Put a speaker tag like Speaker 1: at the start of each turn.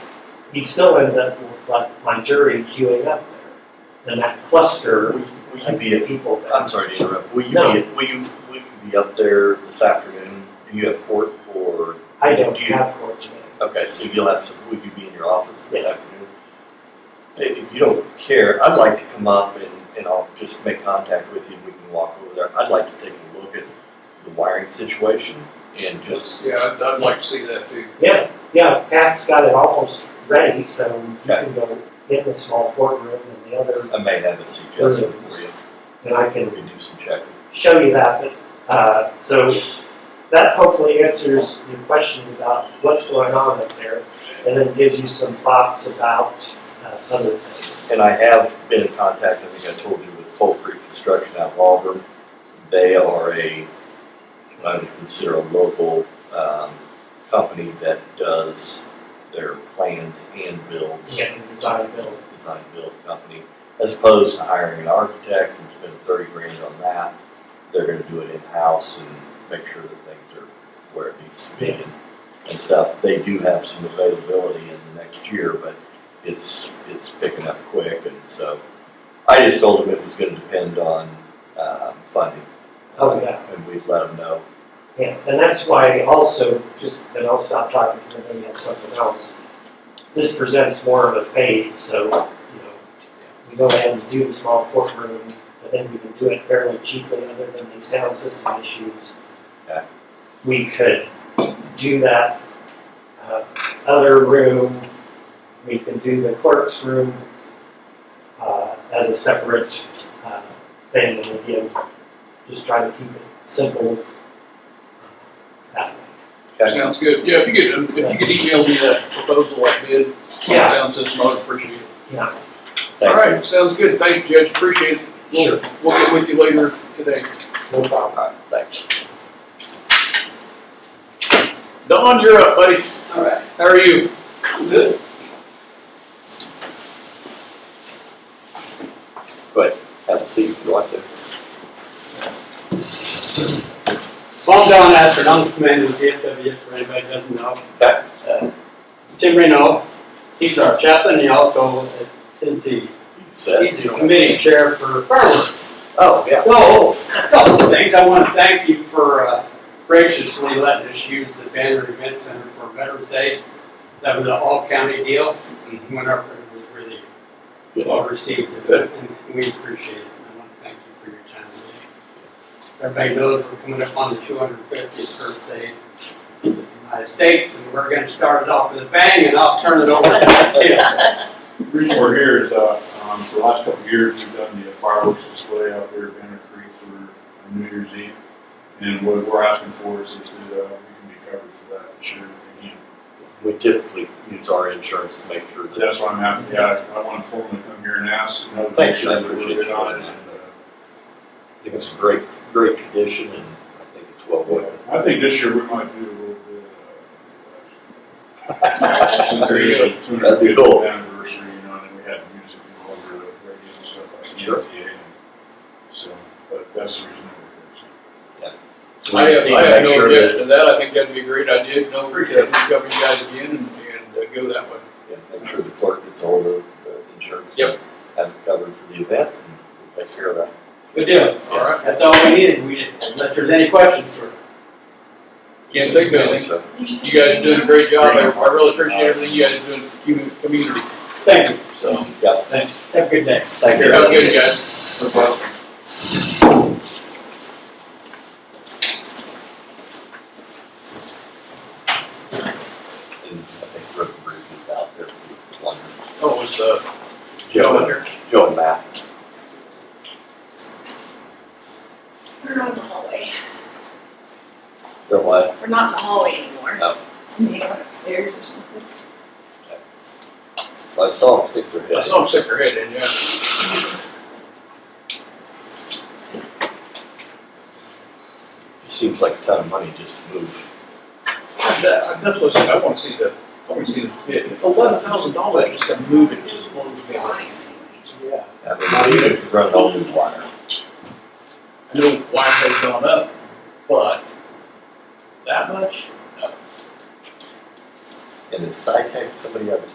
Speaker 1: you'd still end up with like my jury queuing up there. And that cluster
Speaker 2: Will you- will you
Speaker 1: of
Speaker 2: be, at-
Speaker 1: people
Speaker 2: I'm
Speaker 1: there.
Speaker 2: sorry to interrupt, will you be,
Speaker 1: No.
Speaker 2: at- will you, will you be up there this afternoon? Do you have court or,
Speaker 1: I don't
Speaker 2: Do you-
Speaker 1: have court today.
Speaker 2: okay, so you'll have, to- will you be in your office this afternoon? If if you don't care, I'd like to come up and, and I'll just make contact with you and we can walk over there. I'd like to take a look at the wiring situation and just,
Speaker 3: Yeah, I'd, I'd like to see that too.
Speaker 1: Yeah, yeah, Pat's got it almost ready, so you
Speaker 2: Okay.
Speaker 1: can go in the small courtroom and the other,
Speaker 2: I may have a suggestion for you.
Speaker 1: and I can
Speaker 2: We can do some checking.
Speaker 1: show you that. But, uh, so that hopefully answers your questions about what's going on up there, and then gives you some thoughts about uh, other things.
Speaker 2: And I have been in contact, I think I told you, with Toll Creek Construction out of Auburn. They are a, I would consider a local, um, company that does their plans and builds.
Speaker 1: Getting design build.
Speaker 2: Design build company, as opposed to hiring an architect and spending thirty grand on that. They're gonna do it in-house and make sure that things are where it needs to be and, and stuff. They do have some availability in the next year, but it's, it's picking up quick and so. I just told them it was gonna depend on, um, funding.
Speaker 1: Oh, yeah.
Speaker 2: And we'd let them know.
Speaker 1: Yeah, and that's why also, just, and I'll stop talking because then we have something else. This presents more of a phase, so, you know, we go ahead and do the small courtroom, but then we can do it fairly cheaply other than the sound system issues.
Speaker 2: Yeah.
Speaker 1: We could do that, uh, other room, we can do the clerk's room, uh, as a separate, uh, thing, and again, just try to keep it simple that way.
Speaker 2: Okay.
Speaker 3: Sounds good. Yeah, if you could, if you could email me that proposal I bid,
Speaker 1: Yeah.
Speaker 3: sound system, I'd appreciate it.
Speaker 1: Yeah,
Speaker 3: All
Speaker 2: Thank you.
Speaker 3: right, sounds good. Thank you, Judge. Appreciate it. We'll-
Speaker 1: Sure.
Speaker 3: We'll get with you later today.
Speaker 1: no problem.
Speaker 2: All right, thanks.
Speaker 3: Don, you're up, buddy.
Speaker 4: All right,
Speaker 3: How are you?
Speaker 4: good.
Speaker 2: Have a seat if you want to.
Speaker 4: Bob Don Astor, I'm the commander of the DFW, for anybody who doesn't know.
Speaker 2: Okay.
Speaker 4: Uh, Tim Reno, he's our chaplain, he also is the,
Speaker 2: You said.
Speaker 4: he's the committee chair for fireworks.
Speaker 2: Oh, yeah.
Speaker 4: So, a couple of things, I want to thank you for uh, graciously letting us use the Banner Event Center for Veterans Day. That was an all-county deal, and went up, and it was really well received, and we appreciate it. I want to thank you for your time today. Everybody knows we're coming up on the 250th birthday of the United States, and we're going to start it off with a bang, and I'll turn it over to Tim.
Speaker 5: The reason we're here is, uh, um, for the last couple of years, we've done the fireworks display out there at Banner Creek for New Year's Eve. And what we're asking for is that, uh, we can be covered for that this year. again.
Speaker 2: We typically use our insurance to make sure that
Speaker 5: That's why I'm happy, yeah, I want to formally come here and ask. you know, to
Speaker 2: Thank
Speaker 5: make
Speaker 2: you,
Speaker 5: sure
Speaker 2: I
Speaker 5: that we're
Speaker 2: appreciate
Speaker 5: good
Speaker 2: you
Speaker 5: on
Speaker 2: doing
Speaker 5: it.
Speaker 2: that. I think it's a great, great tradition and I think it's well
Speaker 5: And,
Speaker 2: worth
Speaker 5: uh, I think this year we might do a little bit, uh.
Speaker 2: it.
Speaker 5: since it's
Speaker 2: Very
Speaker 5: the
Speaker 2: good. That'd be cool.
Speaker 5: 250th Anniversary, you know, and then we had music and all the radio and stuff like that.
Speaker 2: Sure.
Speaker 5: So, but that's the reason we're here. so.
Speaker 2: So we
Speaker 3: I
Speaker 2: just
Speaker 3: have,
Speaker 2: need
Speaker 3: I
Speaker 2: to
Speaker 3: have
Speaker 2: make
Speaker 3: no
Speaker 2: sure that,
Speaker 3: objection to that. I think that'd be a great idea. No, appreciate it. Cover you guys again and, and uh, go that way.
Speaker 2: yeah, make sure the clerk gets all the, the insurance.
Speaker 3: Yep.
Speaker 2: Have it covered for the event and we'll take care of that.
Speaker 4: Good deal.
Speaker 3: All right.
Speaker 4: That's all we needed, we didn't, unless there's any questions, sir.
Speaker 3: Can't think of anything.
Speaker 2: So,
Speaker 3: You guys are doing a great job. I I really appreciate everything you guys are doing for the community.
Speaker 4: Thank you,
Speaker 3: So,
Speaker 2: Yeah,
Speaker 4: thanks, have a good day.
Speaker 2: thank you.
Speaker 3: have a good guys.
Speaker 2: And I think Rick Bruce is out there for one.
Speaker 3: Oh, it's, uh, Joe out
Speaker 2: Joe,
Speaker 3: there.
Speaker 2: Joe and Matt.
Speaker 6: We're not in the hallway.
Speaker 2: They're what?
Speaker 6: We're not in the hallway anymore.
Speaker 3: Oh.
Speaker 2: No.
Speaker 6: Maybe going upstairs or something.
Speaker 2: So I saw them stick their head.
Speaker 3: I saw him stick her head in, yeah.
Speaker 2: Seems like a ton of money just to move.
Speaker 3: That, uh, that's what I said, I wanna see the, I wanna see the bid. Eleven thousand dollars just to move it, just blows me away. Yeah.
Speaker 2: I mean, not even if you run all new wire.
Speaker 3: I know wire has gone up, but that much?
Speaker 2: And is SciTech somebody up